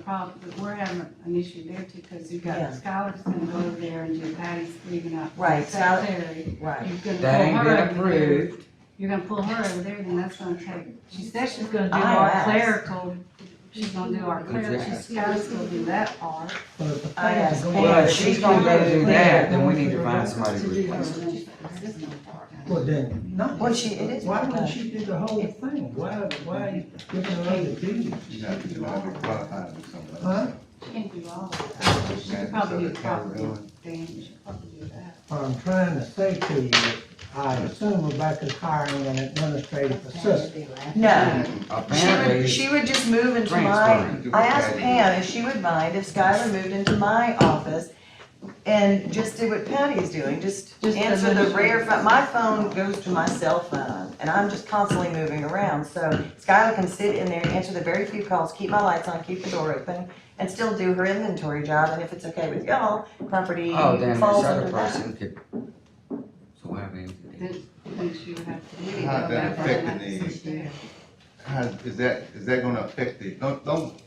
problem, but we're having an issue there too, because you've got Yeah. Skylar's gonna go over there and do Patty's leaving out. Right, Skylar- Secretary. Right. You're gonna That pull ain't her been over there. approved. You're gonna pull her over there, then that's gonna take, she said she's gonna do I our asked. clerical. She's gonna do our clerical, Exactly. Skylar's gonna do that part. I asked Pam. Well, if she she's told gonna go me- do that, then we need to find somebody to Or replace her. then she- it's just gonna part. Well, then, no. Well, she- it is Why part-time. wouldn't she do the whole thing? Why, why are you giving her other duties? You have to, you have to qualify to do something Huh? like She can't do all of that. She could probably do property damage, she could probably do that. What I'm trying to say to you, I assume Rebecca's hiring an administrative assistant. No, she would, Apparently, she would just move into my, Transfer. I asked Pam if she would mind if Skylar moved into my office and just did what Patty is doing, just Just answer the administer. rare phone. My phone goes to my cell phone and I'm just constantly moving around. So Skylar can sit in there, answer the very few calls, keep my lights on, keep the door open, and still do her inventory job. And if it's okay with y'all, property oh, then this falls other under that. person could. So why we even do that? Then she would have to. do How's that all affecting that. the- How, is that, is that gonna affect the, don't, don't, the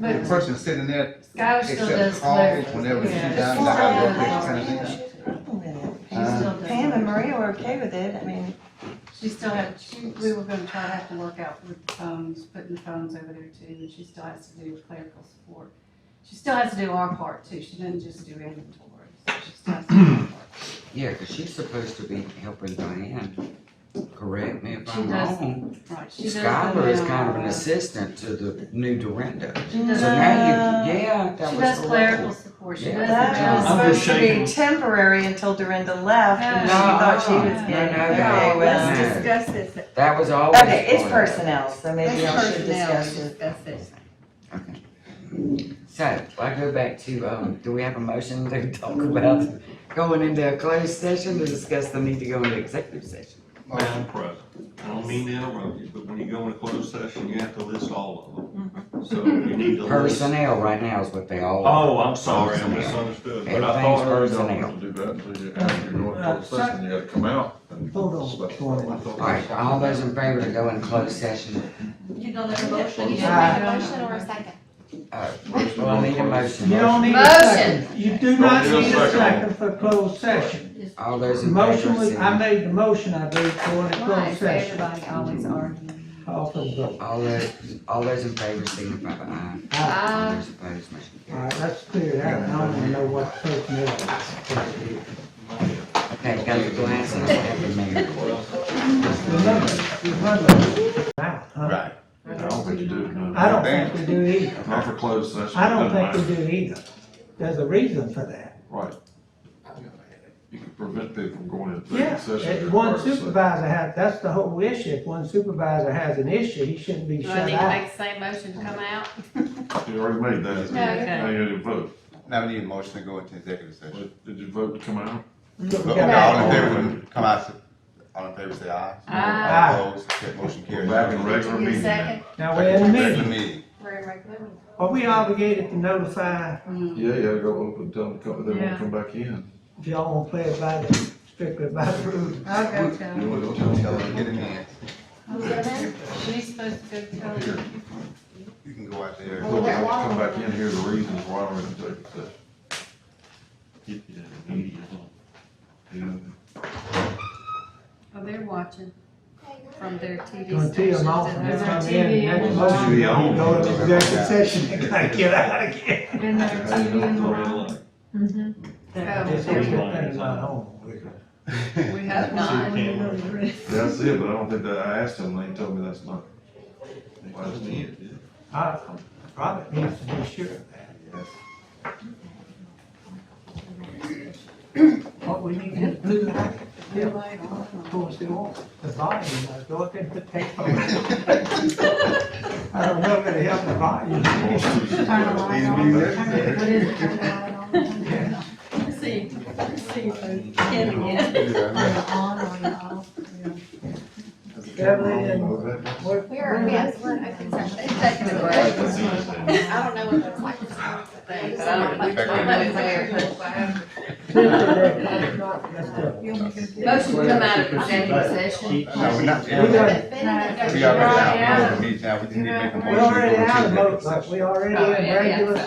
But person sitting there Skylar still does accepts calls clerical. whenever she Yeah. does, Well, like, I yeah, don't think it's kind of yeah, thing. she's working with it. She still does. Uh, Pam and Maria were okay with it. I mean, She still had, she, we were gonna try to have to work out with the phones, putting the phones over there too, and she still has to do clerical support. She still has to do our part too, she didn't just do inventory, so she still has to do our part. Yeah, cause she's supposed to be helping Diane, correct me if She I'm does. wrong. Right, she does the Skylar is kind of an mail, assistant to the new Dorinda. So does- now you, yeah, uh, that She was. does horrible. clerical support, she Yeah. does the That mail. was I'm just supposed to shaking. be temporary until Dorinda left, and she No, thought she no, was no, getting, no, okay, no. well. Let's discuss this, That was always. Okay, it's part of it. personnel, so maybe y'all should discuss it. it. So, I go back to, um, do we have a motion to talk about going into a closed session to discuss the need to go into executive session? uh, Madam President, I don't mean to interrupt you, but when you go into closed session, you have to list all of Mm-hmm. them. So you need to list. Personnel right now is what they all. are. Oh, I'm sorry, I Personnel. misunderstood, but I Everything's thought. personnel. Do that until you, after you go into closed session, you gotta come out and. Uh, Hold on. All right, all those in favor to go in closed session, You don't have a motion? You yet? should make a motion or a second. uh, well, I need a motion. You don't need a Motion. second. You do not Don't need need a a second. second for closed session. All those in favor. Motion was, I say- made the motion I believe for the Why closed is session. everybody always arguing? Call for the vote. All those, all those in favor signify by aye. All All Uh, those opposed, motion carries. right, let's clear it out. I don't even know what personnel is. Okay, got your glasses, I have the mayor. Remember, remember, wow, huh? Right. I don't think you do. no. I don't think we do either. Not for closed session. I don't doesn't matter. think we do either. There's a reason for that. Right. You can prevent people from going into Yeah, closed session. if if one required, so- supervisor has, that's the whole issue. If one supervisor has an issue, he shouldn't be Do I shut need to out. make the same motion to come out? You already made that. No. Now you didn't vote. Now we need a motion to go into executive session. Did- Did you vote to come out? Look, we All in got that. favor, come out, all in favor, say aye. Aye. All opposed, that motion carries. Back in regular Give me a meeting now. second. Now, we're in the Regular meeting. meeting. We're in regular meeting. Are we obligated to notify Mm. Yeah, yeah, go open, tell them, to come- they Yeah. won't come back in. if y'all want to play it by the, strictly by the rules? I'll go tell You her. want to tell Tell them. them, get in here. Who's in it? She's supposed to go tell you. You can go out there. Look, I want to come back in, here the reasons why we're in executive session. Yeah. Oh, they're watching from their TV Gonna stations. tell them off and and their then come TV in, make a and- motion, we Be on. go to executive session and gotta get out again. And their I TV didn't know and the the red wall. light. This Oh, is the thing about home. We hope not. Yeah, I see it, but I don't think that, I asked him, and he told me that's not. Why is it? I, Robert needs to be sure of that. What we need is blue light, blue light on, of course, it won't, the volume, I thought it would take over. I don't know if it helped the volume. Turn the light on. Turn it- What is it, turn the light on? Turn See, see, Kevin, yeah. it on or off? Yeah. That's a Beverly and What was that? what? We are, we have, I think, they've taken a I break. can see it. I don't know what those microphones are, but they- Motion to come out of executive session. No, we're not, we We got, We already out, we need to make a we motion. to already go out into of executive vote, session. we already in regular